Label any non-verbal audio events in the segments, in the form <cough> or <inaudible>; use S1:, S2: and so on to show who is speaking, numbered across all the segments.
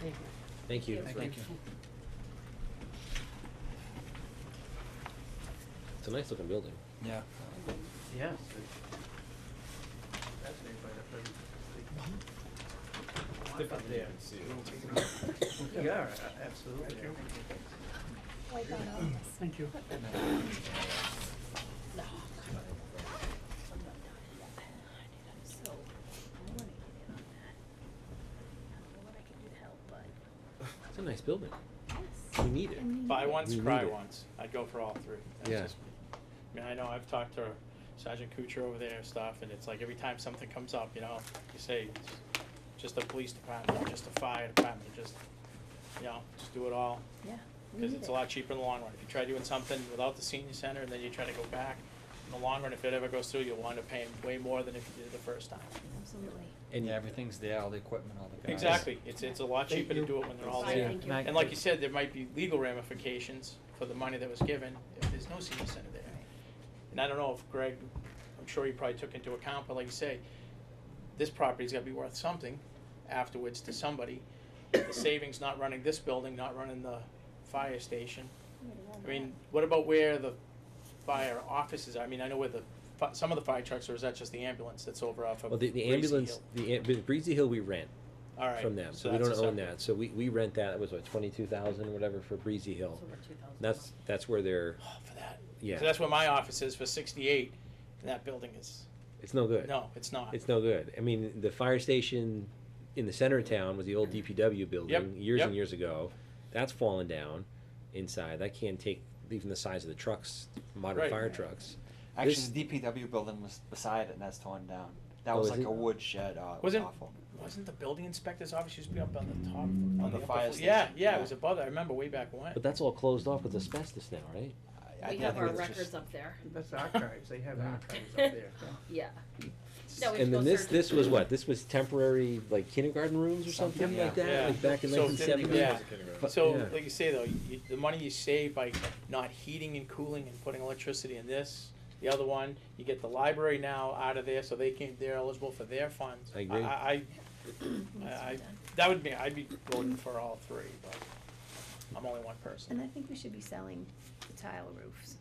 S1: Thank you.
S2: Thank you.
S3: Thank you.
S2: It's a nice looking building.
S3: Yeah.
S1: Yeah.
S4: Different there. Yeah, a- absolutely.
S5: Wipe out all this.
S1: Thank you.
S5: No. I'm not done yet. I need to- So, I wanna get in on that. I don't know what I can do to help, but,
S2: It's a nice building.
S5: yes.
S2: We need it.
S4: Buy once,
S2: We
S4: cry
S2: need it.
S4: once. I'd go for all three. That's
S2: Yeah.
S4: just- I mean, I know, I've talked to Sergeant Kuchar over there and stuff, and it's like every time something comes up, you know, you say, "It's just a police department, just a fire department, just, you know, just do it all.
S5: Yeah. we
S4: Cause
S5: need
S4: it's
S5: it.
S4: a lot cheaper in the long run. If you try doing something without the senior center and then you try to go back, in the long run, if it ever goes through, you'll wind up paying way more than if you did it the first time.
S5: Absolutely.
S3: And yeah, everything's there, all the equipment, all the guys.
S4: Exactly. It's, it's a lot
S1: Thank
S4: cheaper to
S1: you.
S4: do it when they're all
S5: Fine,
S4: there.
S5: thank you.
S3: Mac-
S4: And like you said, there might be legal ramifications for the money that was given if there's no senior center there. And I don't know if Greg, I'm sure he probably took into account, but like you say, this property's gotta be worth something afterwards to somebody. The savings not running this building, not running the fire station.
S5: We gotta
S4: I
S5: warm it
S4: mean, what about where the fire offices are? I mean, I know where the, fi- some of the fire trucks, or is that just the ambulance that's over off of
S2: Well, the, the
S4: Gracie
S2: ambulance,
S4: Oh, Hill?
S2: the, am- the Breezy Hill we rent
S4: All right,
S2: from them,
S4: so
S2: so we
S4: that's a
S2: don't own
S4: separate-
S2: that. So we, we rent that, it was what, twenty-two thousand, whatever, for Breezy Hill. That's, that's where they're,
S4: Oh, for that.
S2: Yeah.
S4: So that's where my office is for sixty-eight, and that building is,
S2: it's no good.
S4: no, it's not.
S2: It's no good. I mean, the fire station in the center of town was the old DPW building years and
S4: yep.
S2: years ago. That's fallen down inside. That can't take even the size of the trucks, modern
S4: Right.
S2: fire trucks.
S6: Actually,
S2: This-
S6: the DPW building was beside it, and that's torn down. That
S2: Oh,
S6: was
S2: is
S6: like
S2: it?
S6: a wood shed. Oh, it was
S4: Wasn't-
S6: awful.
S4: Wasn't the building inspector's office used to be up on the top? On
S6: the
S4: upper
S6: fire
S4: floor? Yeah,
S6: station,
S4: yeah,
S6: yeah.
S4: it was above that, I remember way back when.
S2: But that's all closed off with asbestos now, right?
S6: I- I
S5: We
S6: think
S5: have
S6: it
S5: our
S6: was just-
S5: records up there, <laughs>
S4: That's archives, they have
S5: archives
S2: <laughs>
S5: up there, <laughs> yeah. No, we
S2: and then
S5: both
S2: this
S5: searched.
S2: this was
S5: <clears throat>
S2: what? This was temporary like kindergarten rooms or something,
S6: Something,
S2: like
S6: yeah.
S2: that,
S4: Yeah.
S2: like back in
S4: So-
S2: 1970.
S4: yeah.
S2: But-
S4: So,
S2: yeah.
S4: like you say though, you, the money you save by not heating and cooling and putting electricity in this, the other one, you get the library now out of there, so they can, they're eligible for their funds.
S2: I agree.
S4: I, I, I,
S5: Needs to be
S4: I-
S5: done.
S4: that would be, I'd be voting for all three, but I'm only one
S7: And I
S4: person.
S7: think we should be selling the tile roofs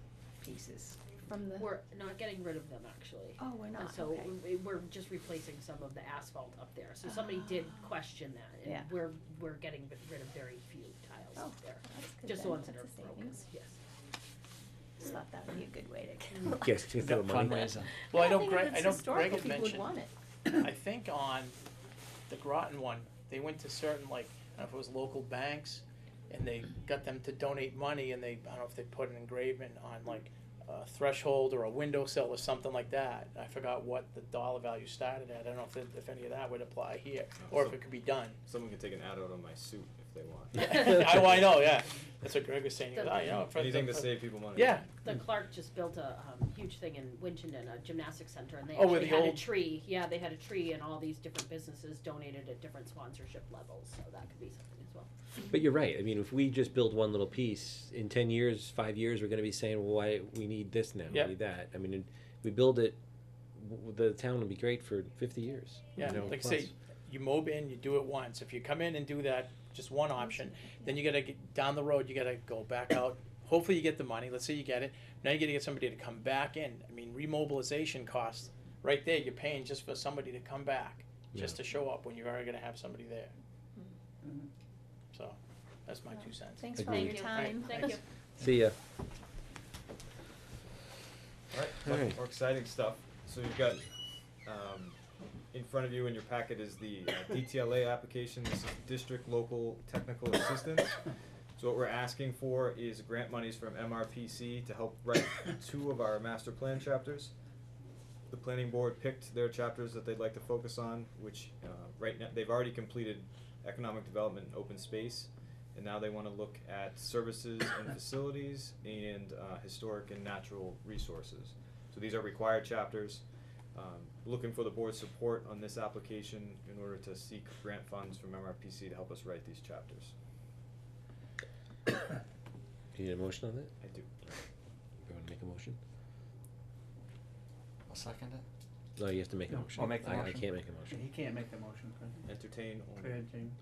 S7: pieces from the,
S5: We're not getting rid of them, actually.
S7: oh, we're
S5: And
S7: not,
S5: So
S7: okay.
S5: we- we're just replacing some of the asphalt up there. So somebody did question that.
S7: Ah. Yeah.
S5: And we're, we're getting rid of very few tiles
S7: Oh,
S5: up there.
S7: that's good
S5: Just the
S7: then.
S5: ones that are
S7: That's a
S5: broken,
S7: savings.
S5: yes.
S7: Just thought that would be a good way
S2: <laughs>
S7: to
S5: Mm.
S7: go.
S2: Yes,
S7: <laughs>
S2: to throw money.
S3: Fundraiser.
S4: Well, I
S7: don't
S4: know
S7: think if
S4: Greg,
S7: it's
S4: I know Greg
S7: historical,
S4: had
S7: people would
S4: mentioned,
S7: want it.
S4: I think on the Groton one, they went to certain, like, I don't know if it was local banks, and they got them to donate money, and they, I don't know if they put an engraving on like a threshold or a window sill or something like that. I forgot what the dollar value started at, I don't know if, it- if any of that would apply here, or if it could be done.
S8: Someone can take an ad out on my suit if they
S4: <laughs>
S8: want.
S4: I, I know, yeah, that's what Greg was saying, He goes, "Oh, you know, for
S8: Anything
S4: the-
S8: to
S4: for-
S8: save people money.
S4: Yeah,
S5: The Clark just built a um, huge thing in Winchendon, a gymnastics center, and they
S4: Oh, where
S5: actually
S4: the
S5: had a
S4: old-
S5: tree. Yeah, they had a tree and all these different businesses donated at different sponsorship levels, so that could be something as well.
S2: But you're right. I mean, if we just build one little piece, in ten years, five years, we're going to be saying, "Well, why we need this now?
S4: Yeah.
S2: We need that." I mean, if we build it, w- the town will be great for fifty years.
S4: Yeah,
S2: you know,
S4: like I
S2: plus.
S4: say, you mob in, you do it once. If you come in and do that, just one option, then you gotta get down the road, you gotta go back out. Hopefully you get the money, let's say you get it, now you gotta get somebody to come back in. I mean, remobilization costs, right there, you're paying just for somebody to come back, just to show up when you're already gonna have somebody there.
S1: Mhm.
S4: So, that's my two cents.
S7: Thanks for all
S2: Agreed.
S7: your time.
S5: Thank you.
S2: See ya.
S8: Alright,
S2: Alright.
S8: much more exciting stuff. So you've got, um, in front of you in your packet is the uh, DTLA application, this is District Local Technical Assistance. So what we're asking for is grant monies from MRPC to help write two of our master plan chapters. The planning board picked their chapters that they'd like to focus on, which, uh, right now, they've already completed economic development and open space. And now they wanna look at services and facilities and, uh, historic and natural resources. So these are required chapters. Um, looking for the board's support on this application in order to seek grant funds from MRPC to help us write these chapters.
S2: You need a motion on that?
S8: I do.
S2: You want to make a motion?
S6: I'll second it.
S2: No, you have to make a
S1: No,
S2: motion.
S6: I'll make the
S2: I- I
S6: motion.
S2: can't make a motion.
S1: He can't make the motion,
S8: Entertain only.
S1: Go ahead, Jamie.